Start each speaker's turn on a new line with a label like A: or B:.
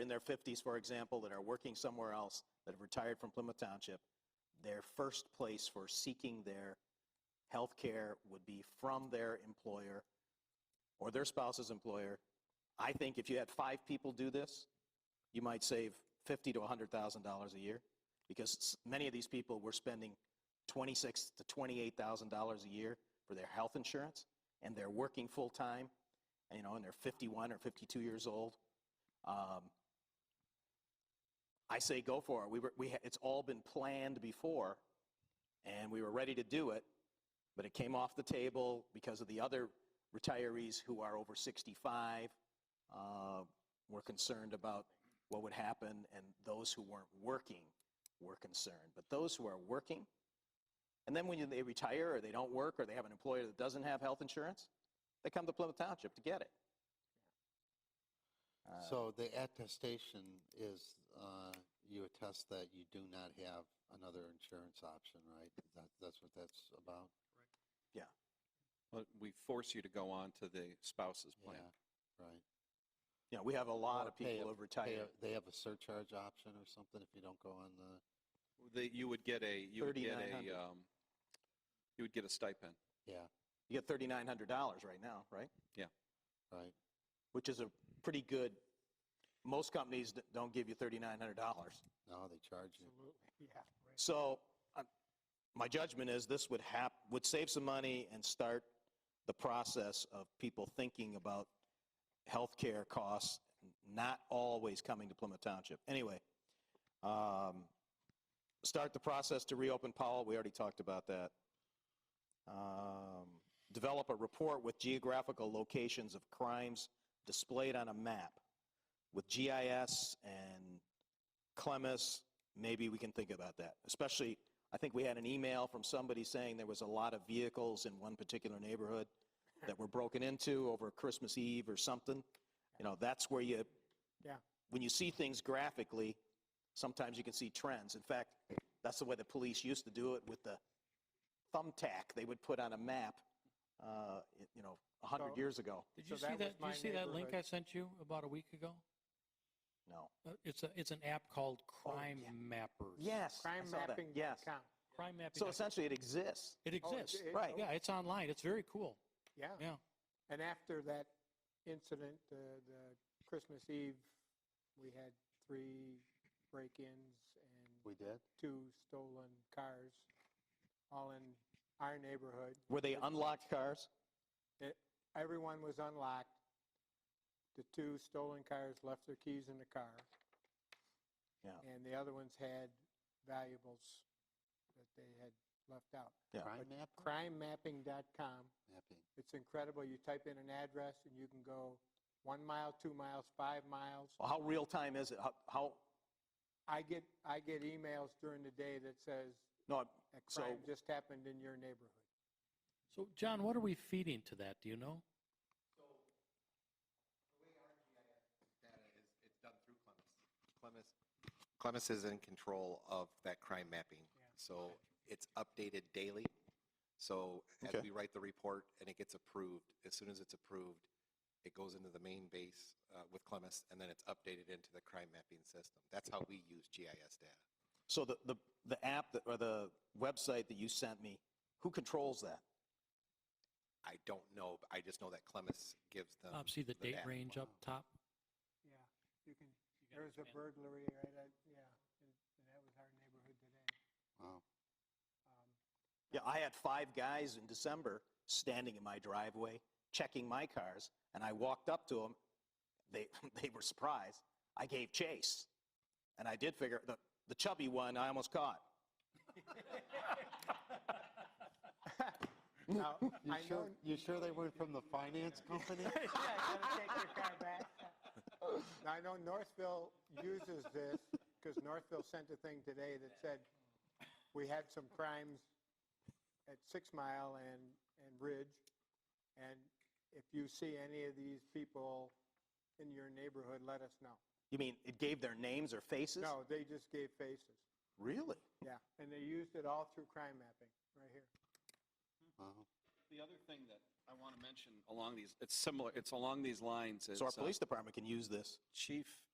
A: in their 50s, for example, that are working somewhere else, that have retired from Plymouth Township, their first place for seeking their health care would be from their employer or their spouse's employer. I think if you had five people do this, you might save fifty to $100,000 a year because s- many of these people were spending twenty-six to $28,000 a year for their health insurance and they're working full-time, and, you know, and they're 51 or 52 years old. Um, I say go for it. We were, we, ha- it's all been planned before, and we were ready to do it, but it came off the table because of the other retirees who are over 65. Uh, were concerned about what would happen, and those who weren't working were concerned. But those who are working, and then when you, they retire or they don't work or they have an employer that doesn't have health insurance, they come to Plymouth Township to get it. Uh,
B: So the attestation is, uh, you attest that you do not have another insurance option, right? That, that's what that's about?
C: But we force you to go on to the spouse's
B: Yeah,
C: plan.
B: right.
A: you know, we have a lot
B: Or
A: of people
B: pay a-
A: who have retired.
B: They, have- they have a surcharge option or something if you don't go on the,
C: That you would get a, you would get
A: $3,900.
C: a, um, you would get a stipend.
B: yeah,
A: You get $3,900 right now, right?
B: right.
A: Which is a pretty good, most companies d- don't give you $3,900.
B: No, they charge you.
D: Absolutely, yeah. right.
A: So uh, my judgment is this would hap, would save some money and start the process of people thinking about healthcare costs, not always coming to Plymouth Township. Anyway, um, start the process to reopen Powell. We already talked about that. Um, develop a report with geographical locations of crimes displayed on a map with GIS and Clemis maybe we can think about that. Especially, I think we had an email from somebody saying there was a lot of vehicles in one particular neighborhood that were broken into over Christmas Eve or something. You know, that's where you,
D: Yeah.
A: when you see things graphically, sometimes you can see trends. In fact, that's the way the police used to do it with the thumbtack they would put on a map, uh, you know, 100
D: So-
A: years ago.
E: Did
D: So
E: you see
D: that was
E: that, did
D: my
E: you see that link
D: neighborhood.
E: I sent you about a week ago?
A: No.
E: Uh, It's a, it's an app called Crime
A: yeah.
E: Mappers.
A: Yes. I
D: Crime
A: saw that.
D: mapping.
A: Yes.
E: Crime mapping.
A: So
E: dot-
A: essentially, it exists.
E: It
D: oh,
E: exists.
A: Right.
E: Yeah, it's online. It's very cool.
D: Yeah.
E: Yeah.
D: And after that incident, the, the Christmas Eve, we had three break-ins and
B: We did?
D: two stolen cars, all in our neighborhood.
A: Were they unlocked cars?
D: Everyone was unlocked. The two stolen cars left their keys in the car.
A: Yeah.
D: And the other ones had valuables that they had left out.
A: Yeah.
B: Crime map?
D: Crimemapping.com.
B: Mapping.
D: It's incredible. You type in an address and you can go one mile, two miles, five miles.
A: Well, how real time is it? How, how
D: I get, I get emails during the day that says
A: no,
D: a
A: So-
D: crime just happened in your neighborhood.
E: So John, what are we feeding to that? Do you know?
F: data is, it's done through Clemis. Clemis, Clemis is in control of that crime mapping. So it's updated daily. So as
A: Okay.
F: we write the report and it gets approved, as soon as it's approved, it goes into the main base uh, with Clemis and then it's updated into the crime mapping system. That's how we use GIS data.
A: So the, the, the app that, or the website that you sent me, who controls that?
F: I don't know, but I just know that Clemis gives them.
E: Um, see the date
F: data.
E: range up top?
D: Yeah, you can, there was a burglary, right, at- yeah, and and that was our neighborhood today.
B: Wow.
D: Um,
A: Yeah, I had five guys in December standing in my driveway, checking my cars, and I walked up to them. They, they were surprised. I gave chase. And I did figure, the, the chubby one, I almost caught.
D: Now,
B: You
D: I
B: sure,
D: know,
B: you sure they weren't from the finance company?
D: now, I know Northville uses this, because Northville sent a thing today that said, we had some crimes at Six Mile and, and Ridge, and if you see any of these people in your neighborhood, let us know.
A: You mean it gave their names or faces?
D: No, they just gave faces,
A: Really?
D: yeah, and they used it all through crime mapping, right here.
B: Wow.
C: The other thing that I want to mention along these, it's similar, it's along these lines is.
A: So our
C: uh,
A: police department can use this.
C: Chief